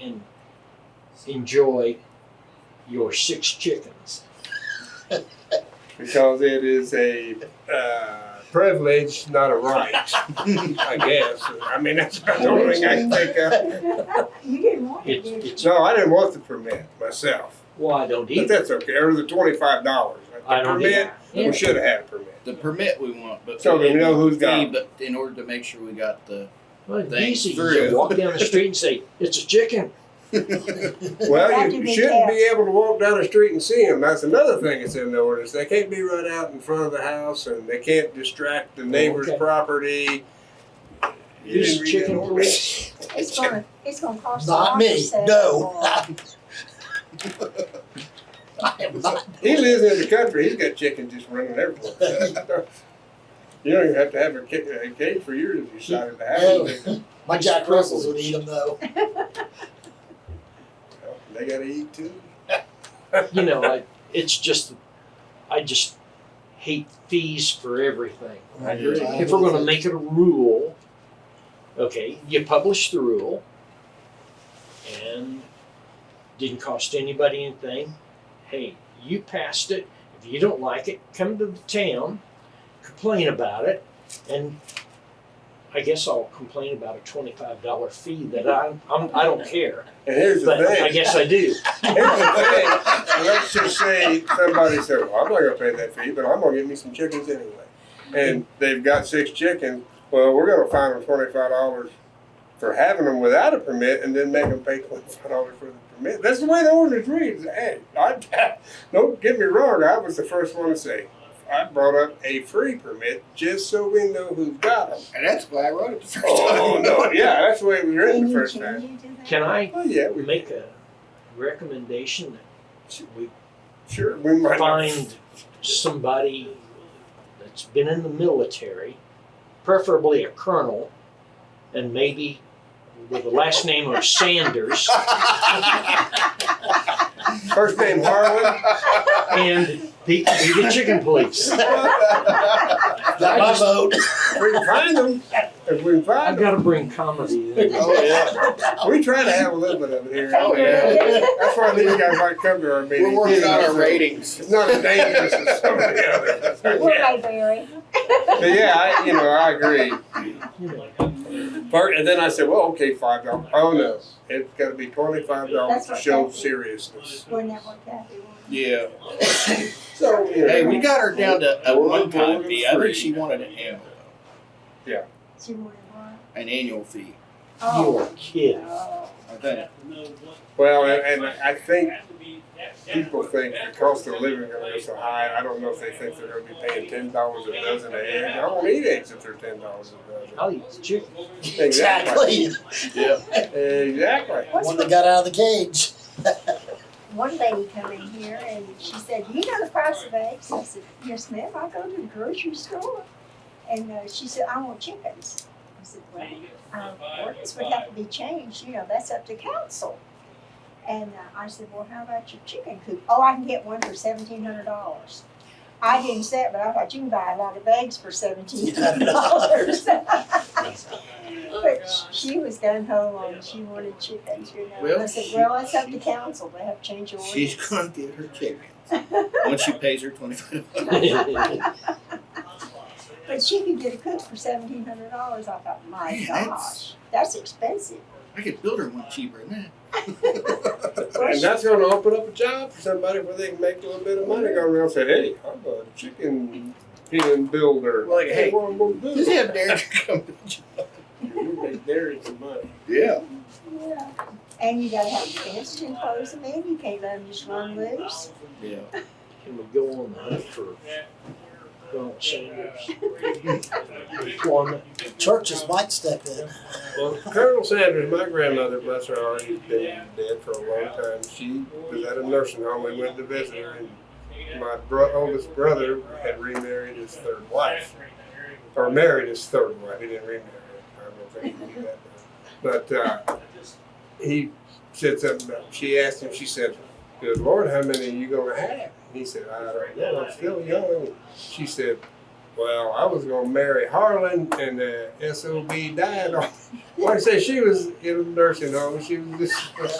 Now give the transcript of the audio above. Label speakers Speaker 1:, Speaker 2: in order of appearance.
Speaker 1: and enjoy your six chickens.
Speaker 2: because it is a uh, privilege, not a right. I guess. I mean, that's the only thing I can think of.
Speaker 3: You didn't want it,
Speaker 1: It's,
Speaker 3: did you?
Speaker 1: it's,
Speaker 2: No, I didn't want the permit myself,
Speaker 1: well, I don't
Speaker 2: but
Speaker 1: either.
Speaker 2: that's okay. Or the twenty-five dollars.
Speaker 1: I don't
Speaker 2: permit.
Speaker 1: either.
Speaker 2: We should have had a permit.
Speaker 4: the permit we want, but
Speaker 2: So we know who's got
Speaker 4: Yeah,
Speaker 2: it.
Speaker 4: But in order to make sure we got the
Speaker 1: Well, it's
Speaker 4: Thanks
Speaker 1: easy. You
Speaker 4: through.
Speaker 1: just walk down the street and say, it's a chicken.
Speaker 2: Well,
Speaker 3: That
Speaker 2: you
Speaker 3: could be
Speaker 2: shouldn't be able to walk down the street and see them. That's another thing that's in the ordinance. They can't be run out in front of the house and they can't distract the neighbor's
Speaker 1: Okay.
Speaker 2: property. You
Speaker 1: Use
Speaker 2: didn't read that
Speaker 1: chicken
Speaker 2: ordinance?
Speaker 1: police.
Speaker 3: It's gonna, it's gonna cost. a
Speaker 5: Not
Speaker 3: lot to
Speaker 5: me,
Speaker 3: set
Speaker 5: no.
Speaker 3: it up.
Speaker 5: I am not.
Speaker 2: He lives in the country, he's got chickens just running everywhere. You don't even have to have a cage, a cage for yours if you decided to have it.
Speaker 5: My Jack Russells would eat them though.
Speaker 2: They gotta eat too.
Speaker 1: You know, I, it's just, I just hate fees for everything.
Speaker 2: I agree.
Speaker 1: If we're gonna make it a rule, okay, you publish the rule and didn't cost anybody anything. Hey, you passed it. If you don't like it, come to the town, complain about it, and I guess I'll complain about a twenty-five dollar fee that I, I'm, I don't care,
Speaker 2: And here's the
Speaker 1: but I
Speaker 2: thing,
Speaker 1: guess I do.
Speaker 2: here's the thing, let's just say somebody said, well, I'm not gonna pay that fee, but I'm gonna get me some chickens anyway. And they've got six chickens, well, we're gonna fine them twenty-five dollars for having them without a permit and then make them pay twenty-five dollars for the permit. That's the way the ordinance reads. Hey, I, don't get me wrong, I was the first one to say, I brought up a free permit just so we know who's got them.
Speaker 4: and that's why I wrote it the first
Speaker 2: Oh,
Speaker 4: time.
Speaker 2: no, yeah, that's the way it was
Speaker 3: Can
Speaker 2: written the
Speaker 3: you,
Speaker 2: first
Speaker 3: can
Speaker 2: time.
Speaker 3: you do that?
Speaker 1: Can I
Speaker 2: Oh, yeah, we
Speaker 1: make a recommendation that we
Speaker 2: sure, we might. not-
Speaker 1: find somebody that's been in the military, preferably a colonel, and maybe with the last name of Sanders,
Speaker 2: First name Harlan.
Speaker 1: and he could be the chicken police.
Speaker 5: Not my vote.
Speaker 2: If we can find them, if we can
Speaker 1: I've
Speaker 2: find them.
Speaker 1: got to bring comedy in.
Speaker 4: Oh, yeah.
Speaker 2: We try to have a little bit of it here.
Speaker 4: Oh,
Speaker 3: yeah.
Speaker 2: That's why these guys might come to our meetings.
Speaker 4: We're working on our
Speaker 2: It's
Speaker 4: ratings.
Speaker 2: not as dangerous as some of the others.
Speaker 3: We're Mayberry.
Speaker 2: But yeah, I, you know, I agree.
Speaker 1: You know,
Speaker 2: Part, and then I said, well, okay, five dollars. Oh no, it's got to be twenty-five dollars
Speaker 3: That's
Speaker 2: to
Speaker 3: what
Speaker 2: show
Speaker 3: that is.
Speaker 2: seriousness.
Speaker 3: We're never happy.
Speaker 4: Yeah.
Speaker 2: So you know,
Speaker 4: Hey, we got her down to a
Speaker 2: Four,
Speaker 4: one time
Speaker 2: four,
Speaker 4: fee. I
Speaker 2: three.
Speaker 4: think she wanted an annual,
Speaker 3: She wanted one.
Speaker 4: an annual fee.
Speaker 3: Oh.
Speaker 1: You're kidding.
Speaker 3: Oh.
Speaker 4: I think.
Speaker 2: well, and, and I think people think the cost of living is going to be so high. I don't know if they think they're going to be paying ten dollars a dozen of eggs. I won't eat eggs if they're ten dollars a dozen.
Speaker 1: I'll eat the chicken.
Speaker 5: Exactly.
Speaker 4: Yeah.
Speaker 2: Exactly.
Speaker 5: One that got out of the cage.
Speaker 3: One lady come in here and she said, "You know the price of eggs?" I said, "Yes, ma'am. I go to the grocery store." And uh, she said, "I want chickens." I said, "Well, um, ordinance would have to be changed. You know, that's up to council." And uh, I said, "Well, how about your chicken coop? Oh, I can get one for seventeen hundred dollars." I didn't say it, but I thought you can buy a lot of eggs for seventeen hundred dollars. But sh- she was gun ho on she wanted chickens, you know. And I
Speaker 4: Well,
Speaker 3: said,
Speaker 4: she-
Speaker 3: well, that's up to council. They have to change your ordinance.
Speaker 4: She's going to get her chickens once she pays her $25.
Speaker 1: Well,
Speaker 3: But she could get a cook for seventeen hundred dollars. I thought, my
Speaker 4: Man,
Speaker 3: gosh, that's expensive.
Speaker 4: I could build her one cheaper than that.
Speaker 2: And that's gonna open up a job for somebody where they can make a little bit of money, go around and say, hey, I'm a chicken pen builder.
Speaker 4: Like, hey,
Speaker 2: What I'm gonna
Speaker 4: Just
Speaker 2: do?
Speaker 4: have Derek come to the job.
Speaker 2: We make dairy some money.
Speaker 4: Yeah.
Speaker 3: Yeah. And you gotta have the fence to enclose them in. You can't let them just run loose.
Speaker 4: Yeah.
Speaker 1: Can we go on the hunt for Donald Sanders? Employment.
Speaker 5: Churches might step in.
Speaker 2: Well, Colonel Sanders, my grandmother, bless her heart, has been dead for a long time. She was at a nursing home. We went to visit her and my bro- oldest brother had remarried his third wife. Or married his third wife. He didn't remarry. I don't think he did that. But, uh, he said something about, she asked him, she said, Good Lord, how many are you going to have? And he said, I don't know, I'm still young. She said, well, I was gonna marry Harlan and the SOB died on, like I say, she was in a nursing home, she was just.